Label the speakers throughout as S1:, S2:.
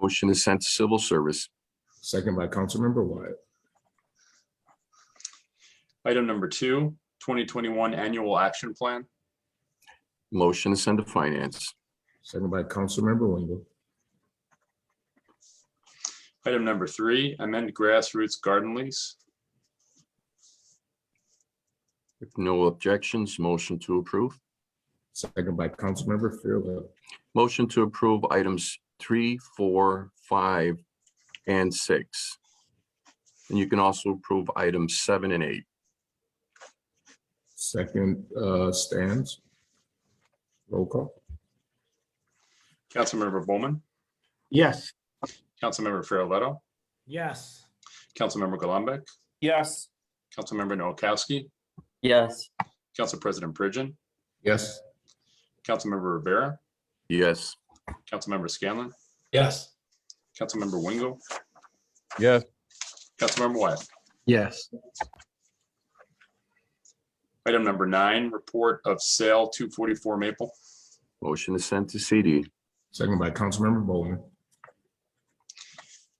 S1: Motion is sent to civil service.
S2: Second by Councilmember Wyatt.
S3: Item number two, 2021 Annual Action Plan.
S1: Motion is sent to finance.
S2: Second by Councilmember Wingo.
S3: Item number three, amend grassroots garden lease.
S1: If no objections, motion to approve.
S2: Second by Councilmember Farrelletto.
S1: Motion to approve items three, four, five, and six. And you can also approve items seven and eight.
S2: Second uh, stands. Roll call.
S3: Councilmember Bowman,
S4: Yes.
S3: Councilmember Farrelletto,
S5: Yes.
S3: Councilmember Gullumbeck,
S5: Yes.
S3: Councilmember Noakowski,
S6: yes,
S3: Council President Pridgen,
S2: Yes.
S3: Councilmember Rivera,
S1: Yes.
S3: Councilmember Scanlon,
S5: Yes.
S3: Councilmember Wingo,
S7: yes,
S3: Councilmember Wyatt.
S4: Yes.
S3: Item number nine, report of sale 244 Maple.
S1: Motion is sent to CD.
S2: Second by Councilmember Bowman.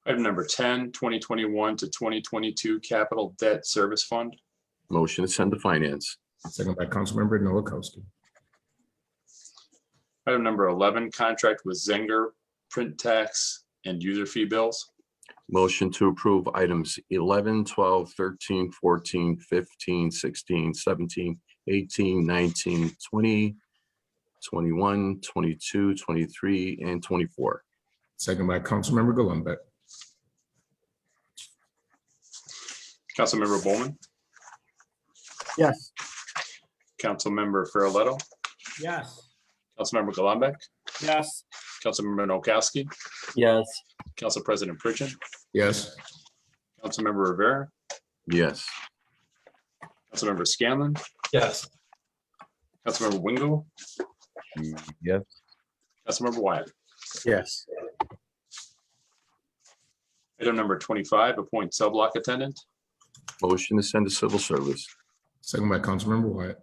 S3: Item number 10, 2021 to 2022 Capital Debt Service Fund.
S1: Motion is sent to finance.
S2: Second by Councilmember Noakowski.
S3: Item number 11, contract with Zenger, print tax, and user fee bills.
S1: Motion to approve items 11, 12, 13, 14, 15, 16, 17, 18, 19, 20, 21, 22, 23, and 24.
S2: Second by Councilmember Gullumbeck.
S3: Councilmember Bowman,
S4: Yes.
S3: Councilmember Farrelletto,
S5: Yes.
S3: Councilmember Gullumbeck,
S5: Yes.
S3: Councilmember Noakowski,
S6: yes,
S3: Council President Pridgen,
S2: Yes.
S3: Councilmember Rivera,
S1: Yes.
S3: Councilmember Scanlon,
S5: Yes.
S3: Councilmember Wingo,
S7: yes,
S3: Councilmember Wyatt.
S4: Yes.
S3: Item number 25, appoint sublock attendant.
S1: Motion to send to civil service.
S2: Second by Councilmember Wyatt.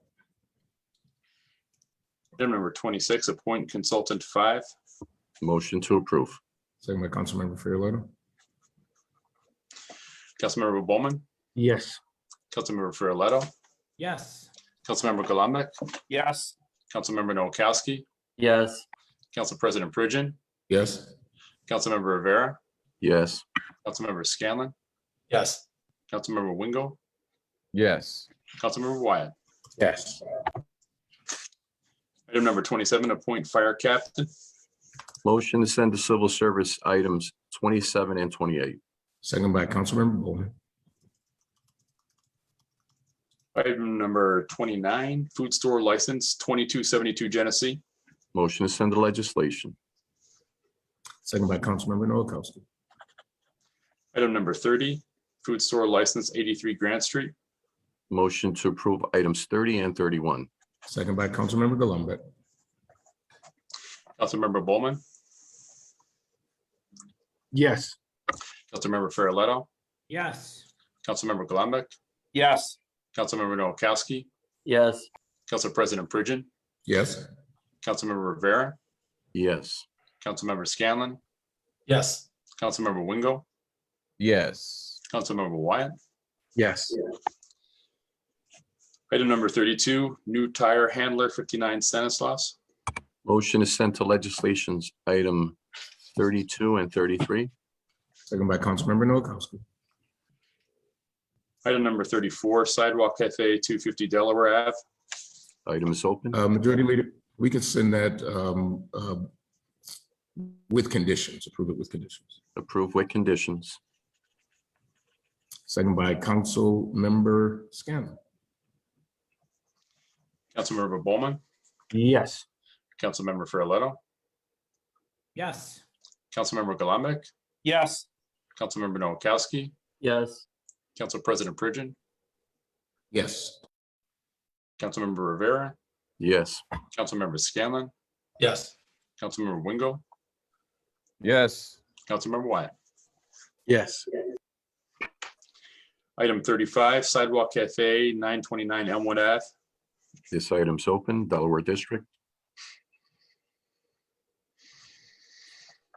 S3: Item number 26, appoint consultant five.
S1: Motion to approve.
S2: Second by Councilmember Farrelletto.
S3: Councilmember Bowman,
S4: Yes.
S3: Councilmember Farrelletto,
S5: Yes.
S3: Councilmember Gullumbeck,
S5: Yes.
S3: Councilmember Noakowski,
S6: yes,
S3: Council President Pridgen,
S2: Yes.
S3: Councilmember Rivera,
S1: Yes.
S3: Councilmember Scanlon,
S5: Yes.
S3: Councilmember Wingo,
S7: yes,
S3: Councilmember Wyatt.
S4: Yes.
S3: Item number 27, appoint fire captain.
S1: Motion to send to civil service items 27 and 28.
S2: Second by Councilmember Bowman.
S3: Item number 29, food store license 2272 Genesee.
S1: Motion to send to legislation.
S2: Second by Councilmember Noakowski.
S3: Item number 30, food store license 83 Grant Street.
S1: Motion to approve items 30 and 31.
S2: Second by Councilmember Gullumbeck.
S3: Councilmember Bowman,
S4: Yes.
S3: Councilmember Farrelletto,
S5: Yes.
S3: Councilmember Gullumbeck,
S5: Yes.
S3: Councilmember Noakowski,
S6: yes,
S3: Council President Pridgen,
S2: Yes.
S3: Councilmember Rivera,
S1: Yes.
S3: Councilmember Scanlon,
S5: Yes.
S3: Councilmember Wingo,
S7: yes,
S3: Councilmember Wyatt.
S4: Yes.
S3: Item number 32, new tire handler 59 Stanislaus.
S1: Motion is sent to legislations item 32 and 33.
S2: Second by Councilmember Noakowski.
S3: Item number 34, sidewalk cafe 250 Delaware Ave.
S1: Item is open.
S2: Uh, Majority Leader, we can send that um, uh, with conditions, approve it with conditions.
S1: Approved with conditions.
S2: Second by Councilmember Scanlon.
S3: Councilmember Bowman,
S4: Yes.
S3: Councilmember Farrelletto,
S5: Yes.
S3: Councilmember Gullumbeck,
S5: Yes.
S3: Councilmember Noakowski,
S6: yes,
S3: Council President Pridgen,
S2: Yes.
S3: Councilmember Rivera,
S1: Yes.
S3: Councilmember Scanlon,
S5: Yes.
S3: Councilmember Wingo,
S7: yes,
S3: Councilmember Wyatt.
S4: Yes.
S3: Item 35, sidewalk cafe 929 Elmwood Ave.
S1: This item's open, Delaware District.